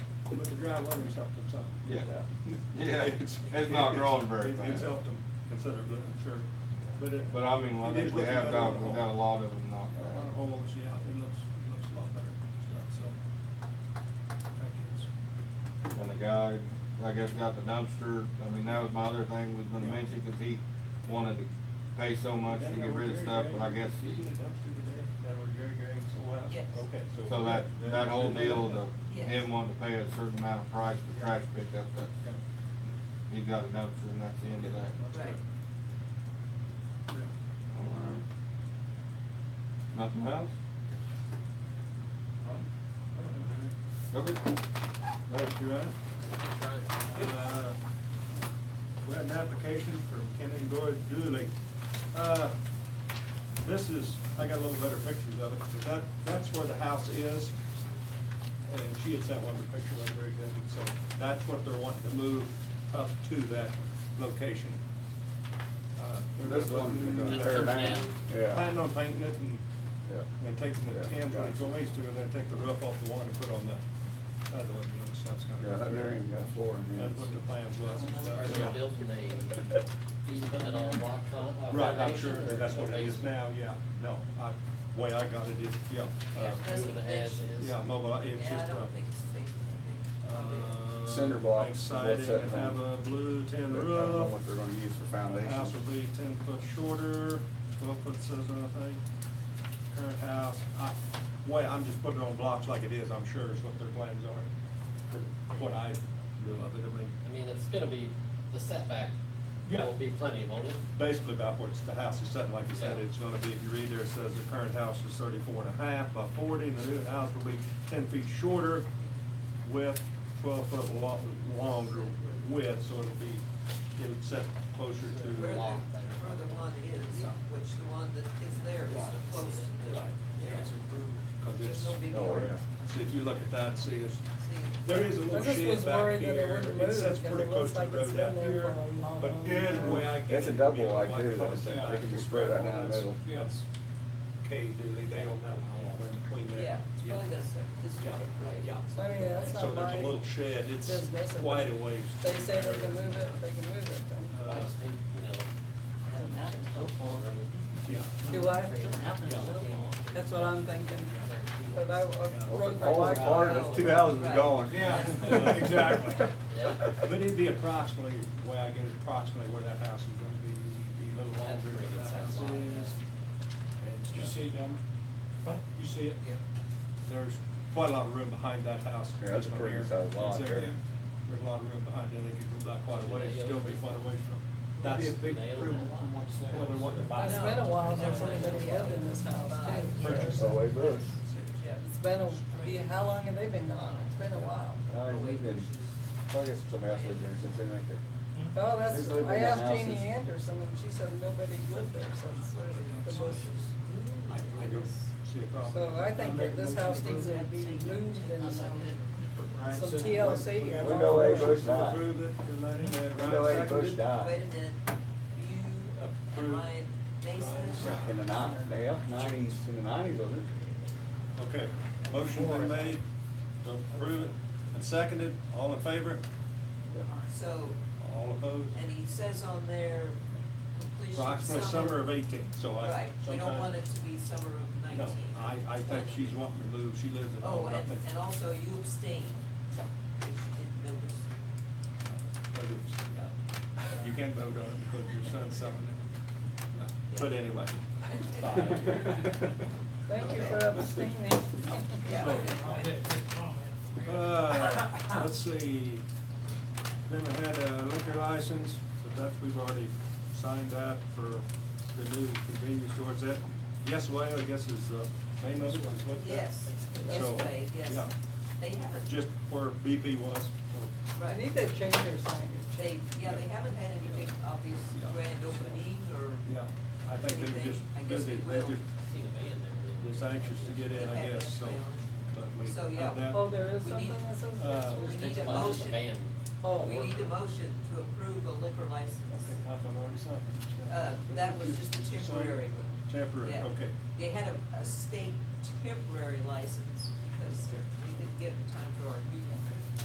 But the dry weather's helped them some. Yeah. Yeah, it's, it's not growing very It- fast. It's helped them considerably, I'm sure. But it. But I mean, like, it is we looking have better got, on the we got a whole. lot of them knocked On the out. whole, it's- yeah, it looks, looks a lot better, stuff, so. Thank you. And the guy, I guess, got the dumpster, I mean, that was my other thing was gonna mention, cause he wanted to pay so much to get rid of stuff, but I guess, Using the dumpster today, that were Jerry Gray's, oh, wow. Yes. Okay, so. so that, that whole deal, the, Yes. him wanting to pay a certain amount of price for trash pickup, Yeah. that, he got a dumpster and that's the end of that. Right. Yeah. Nothing else? Okay. Thank you, Ryan. Uh, We had an application from Ken and Gloria Dooley. Uh, This is, I got a little better pictures of it, but that, that's where the house is. And she had sent one of the pictures, I'm very good, so that's what they're wanting to move up to that location. Uh, they're This one, gonna- they're gonna tear down. Yeah. Planning on painting it and Yeah. and take the Yeah. ten, twenty, twenty, and then take the roof off the one and put on the other one, you know, so it's gonna. Yeah, that there ain't got floor in there. That's what the plan was. and Are stuff, they yeah. building a, he's putting it on rock con- uh, Right, I'm foundation sure or that that's what it is now, basement? yeah, no, I, way I got it is, yeah. Yeah, that's what it has is. Yeah, mobile, it's Yeah, I just a. don't think it's safe. uh, Cinder block is Exciting, what's that and have thing? a blue I tin don't roof. know what they're gonna use for The house will foundation. be ten foot shorter, twelve foot says anything. Current house, I, well, I'm just putting it on blocks like it is, I'm sure is what their plans are. for What I do of it, I mean, I mean, it's gonna be, the setback Yeah. will be plenty, won't it? basically about what's the house is setting, like you said, Yeah. it's gonna be, if you read there, it says the current house is thirty-four and a half by forty, and the new house will be ten feet shorter with twelve foot lo- longer width, so it'll be, it'll set closer to. Where the, lot. where the one is, which the one that is there is the closest to it. Yeah. Cause There's it's, no big oh, area. see, if you look at that, see, it's, See, there is a I little just was shed back worried that it here, wouldn't it move, sits 'cause pretty it close looks to like the it's road been out there here, for a long, but long good time. way I get. It's a it, double you know, like this, across it's- that, they can just spread that down the middle. Yes. Okay, Dooley, they don't know how long in between there. yeah, it's probably gonna set this Yeah, one, right? yeah. I mean, that's So not there's a my little shed, it's business. If quite a ways. They say they can move it, they can move it. then. Uh, I just think, you know, Doesn't matter. Yeah. Do I? Yeah. That's what I'm thinking. But I, I wrote the All like. the part of two houses is gone. Yeah, exactly. But it'd be approximately, the way I get it, approximately where that house is gonna be, be a little That's longer pretty than good that size house lot. is. And You stuff. see them? What? You see it? Yeah. There's quite a lot of room behind that house. Yeah, that's a pretty Here. sized lot It's there. there. There's a lot of room behind it, they could go back quite a ways, Yeah. still be quite a ways from. That'd That's, Be a big Nailed improvement it. from what's there. Well, they want to buy It's been a while since anybody lived in this house too. Purchase. So it was. Yeah. It's been a, yeah, how long have they been gone? It's been a while. I mean, they've been, I guess it's a mess with there since they make it. Oh, that's, They've lived I in that asked house Jeannie since- Anderson and she said nobody lived there since the Mm. Bushes. I, I don't see a problem. So I think that this house needs to be moved and Right, some so- TLC. We got We all the know they Bush motions died. approved it, and Lenny had You know, Ryan they Bush seconded. Wait a died minute, you and uh, Approved. Ryan in Mason, the nineties, yeah, nineties, in the nineties, wasn't it? Okay, motion been made, to approve it, and seconded, all in favor, so, all opposed? and he says on there completion Approximately summer of eighteen, so I. Right, we don't sometime- want it to be summer of nineteen. No, I, I think she's wanting to move, she lives at Oh, home, I and, think. and also you abstain, if you didn't notice. but it's- You can vote on it because your son's summoned it. No, But anyway. Fine. Thank you for abstaining. Uh, let's see, then we had a liquor license, but that, we've already signed that for the new convenience stores, that, yes, well, I guess is, uh, main one, is what that? Yes, yes, So, way, yes. yeah. They haven't. Just where BP was, I Right, need to change their signage. they, yeah, they haven't had any big obvious Yeah. grand opening or. yeah, I think they were just, Anything, I guess busy. they they will. just, seen a van there. just anxious to get in, I guess, so, but we. So, had yeah. that. Oh, there is We need- something that says. Uh, We need a Well, it's motion, van. Oh, we need a motion to approve a liquor license. Okay, I thought I already signed it. Uh, that was just a temporary one. Temporary, Yeah. okay. They had a, a state temporary license because we didn't get it in time for our new